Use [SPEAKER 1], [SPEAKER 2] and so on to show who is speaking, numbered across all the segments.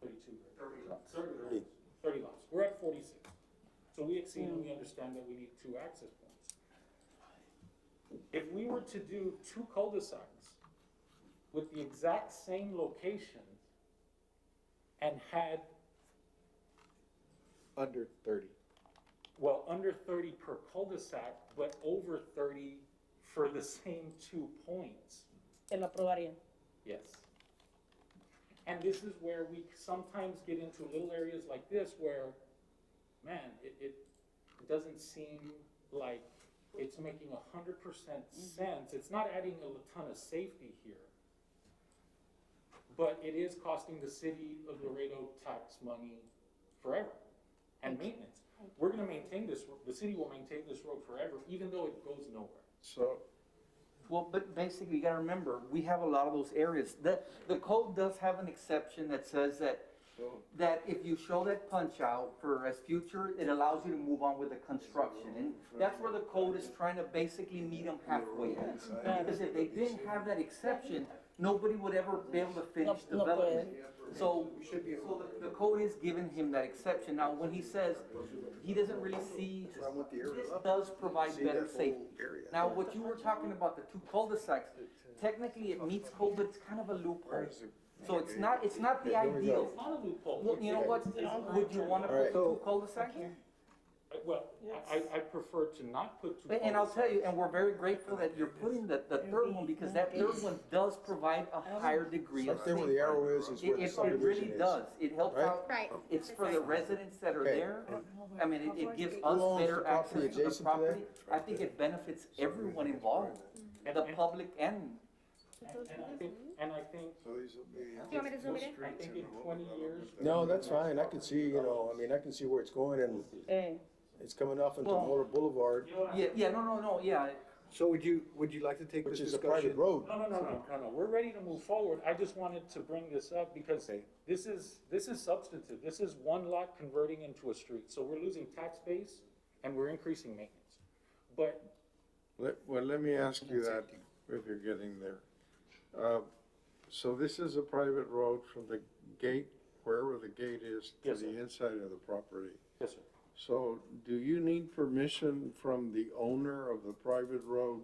[SPEAKER 1] two, or
[SPEAKER 2] Thirty lots.
[SPEAKER 1] thirty, thirty lots, we're at forty-six. So we exceed and we understand that we need two access points. If we were to do two cul-de-sacs with the exact same location and had,
[SPEAKER 3] Under thirty.
[SPEAKER 1] well, under thirty per cul-de-sac, but over thirty for the same two points,
[SPEAKER 4] Te lo aprobarían.
[SPEAKER 1] Yes. And this is where we sometimes get into little areas like this where, man, it, it it doesn't seem like it's making a hundred percent
[SPEAKER 5] Mm-hmm.
[SPEAKER 1] sense. It's not adding a ton of safety here. But it is costing the city of Laredo tax money forever and maintenance. We're gonna maintain this, ro- the city will maintain this road forever, even though it goes nowhere.
[SPEAKER 3] So,
[SPEAKER 5] Well, but basically, you gotta remember, we have a lot of those areas. The, the code does have an exception that says that, that if you show that punch out for as future, it allows you to move on with the construction. And that's where the code is trying to basically meet them halfway. at. Because if they didn't have that exception, nobody would ever be able to
[SPEAKER 4] No,
[SPEAKER 5] finish
[SPEAKER 4] no
[SPEAKER 5] development.
[SPEAKER 4] puede.
[SPEAKER 5] So, so the, the code is giving him that exception. Now, when he says, he doesn't really see, this does provide better safety. Now, what you were talking about, the two cul-de-sacs, technically it meets code, but it's kind of a loophole. So it's not, it's not the
[SPEAKER 3] Yeah, here we go.
[SPEAKER 5] ideal.
[SPEAKER 1] It's not a loophole.
[SPEAKER 5] Well, you know what, would you wanna put
[SPEAKER 3] All
[SPEAKER 5] two
[SPEAKER 3] right.
[SPEAKER 5] cul-de-sacs here?
[SPEAKER 1] Uh, Well, I, I- I prefer to not put two.
[SPEAKER 5] But- And I'll
[SPEAKER 1] cul-de-sacs.
[SPEAKER 5] tell you, and we're very grateful that you're putting the, the third one, because that third one does provide a higher degree of
[SPEAKER 3] right there where the
[SPEAKER 5] safety.
[SPEAKER 3] arrow is, is where
[SPEAKER 5] It,
[SPEAKER 3] the
[SPEAKER 5] it it really
[SPEAKER 3] subdivision is.
[SPEAKER 5] does, it helps
[SPEAKER 3] Right?
[SPEAKER 5] out,
[SPEAKER 6] Right.
[SPEAKER 5] it's for the residents that are
[SPEAKER 3] Okay.
[SPEAKER 5] there. I mean, it, it gives
[SPEAKER 3] Who
[SPEAKER 5] us
[SPEAKER 3] owns the
[SPEAKER 5] better
[SPEAKER 3] property
[SPEAKER 5] access to the
[SPEAKER 3] adjacent to
[SPEAKER 5] property. I think it benefits everyone involved,
[SPEAKER 1] And-
[SPEAKER 5] the
[SPEAKER 1] and-
[SPEAKER 5] public and
[SPEAKER 1] And and I think, and I think,
[SPEAKER 6] Do you want me to zoom it in?
[SPEAKER 1] I think in twenty years.
[SPEAKER 3] No, that's fine, I can see, you know, I mean, I can see where it's going and
[SPEAKER 4] Eh,
[SPEAKER 3] it's coming off into
[SPEAKER 5] Well-
[SPEAKER 3] Motor Boulevard,
[SPEAKER 1] You know what I-
[SPEAKER 5] Yeah, yeah, no, no, no, yeah.
[SPEAKER 7] So would you, would you like to take this
[SPEAKER 3] which is a
[SPEAKER 7] discussion?
[SPEAKER 3] private road.
[SPEAKER 1] No, no, no, no, no, no, we're ready to move forward, I just wanted to bring this up because
[SPEAKER 3] Okay.
[SPEAKER 1] this is, this is substantive, this is one lot converting into a street, so we're losing tax base and we're increasing maintenance. But
[SPEAKER 8] Let, well, let me ask you that, if you're getting there. Uh, So this is a private road from the gate, wherever the gate is, to
[SPEAKER 1] Yes, sir.
[SPEAKER 8] the inside of the property.
[SPEAKER 1] Yes, sir.
[SPEAKER 8] So do you need permission from the owner of the private road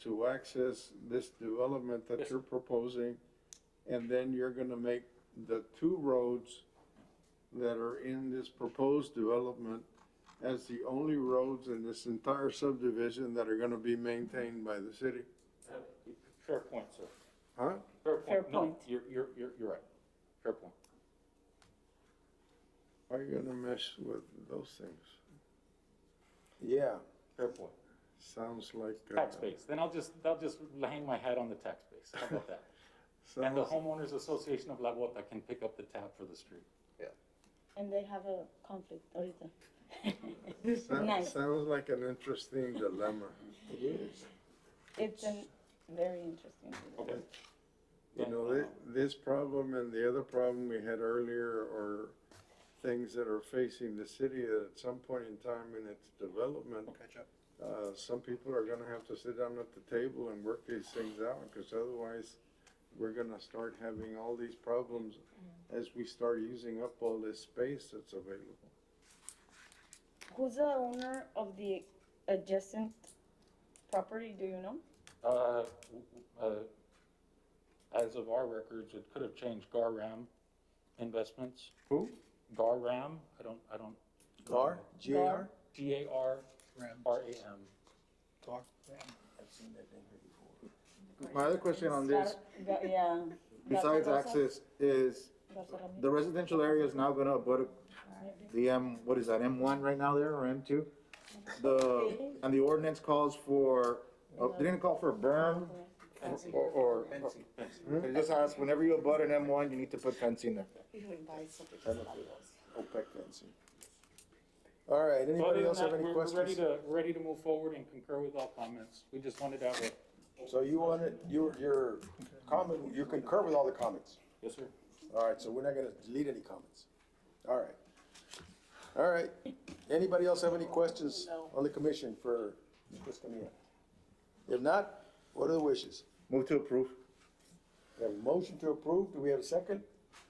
[SPEAKER 8] to access this development
[SPEAKER 1] Yes,
[SPEAKER 8] that
[SPEAKER 1] sir.
[SPEAKER 8] you're proposing? And then you're gonna make the two roads that are in this proposed development as the only roads in this entire subdivision that are gonna be maintained by the city?
[SPEAKER 1] Fair point, sir,
[SPEAKER 8] Huh?
[SPEAKER 1] fair
[SPEAKER 4] Fair
[SPEAKER 1] point, no,
[SPEAKER 4] point.
[SPEAKER 1] you're, you're, you're, you're right, fair point.
[SPEAKER 8] Are you gonna mess with those things?
[SPEAKER 3] Yeah,
[SPEAKER 1] Fair point.
[SPEAKER 8] Sounds like. uh,
[SPEAKER 1] Tax base, then I'll just, I'll just hang my hat on the tax base, how about that? And the
[SPEAKER 8] sounds-
[SPEAKER 1] homeowners association of La Gota can pick up the tab for the street.
[SPEAKER 4] and they have a conflict ahorita.
[SPEAKER 8] sounds-
[SPEAKER 4] Nice.
[SPEAKER 8] Sounds like an interesting dilemma.
[SPEAKER 3] it is.
[SPEAKER 4] It's an, very interesting.
[SPEAKER 1] Okay.
[SPEAKER 8] You know, thi- this problem and the other problem we had earlier are things that are facing the city that at some point in time in its development. Uh, some people are gonna have to sit down at the table and work these things out, cause otherwise we're gonna start having all these problems as we start using up all this space that's available.
[SPEAKER 4] Who's the owner of the adjacent property, do you know?
[SPEAKER 1] Uh, w- w- uh, as of our records, it could have changed Garram Investments.
[SPEAKER 8] Who?
[SPEAKER 1] Garram, I don't, I don't,
[SPEAKER 3] Gar, G A R?
[SPEAKER 1] G A R R A M.
[SPEAKER 9] My other question on this,
[SPEAKER 4] Gar- Ga- Yeah.
[SPEAKER 9] besides
[SPEAKER 4] Garza-
[SPEAKER 9] access, is
[SPEAKER 4] Garza Ramirez.
[SPEAKER 9] the residential area is now gonna abut the M, what is that, M one right now there, or M two? The, and the ordinance calls for, oh, they didn't call for a berm, or, or, it just asks, whenever you abut an M one, you need to put fencing there.
[SPEAKER 3] Opaque fencing. All right, anybody else have any
[SPEAKER 1] We're ready
[SPEAKER 3] questions?
[SPEAKER 1] to, we're ready to move forward and concur with all comments. We just wanted to have a,
[SPEAKER 3] So you wanted, your, your comment, you concur with all the comments?
[SPEAKER 1] yes, sir.
[SPEAKER 3] All right, so we're not gonna delete any comments. All right. All right. Anybody else have any questions on the commission for Ms. Camilla? If not, what are the wishes?
[SPEAKER 9] Move to approve.
[SPEAKER 3] We have a motion to approve. Do we have a second?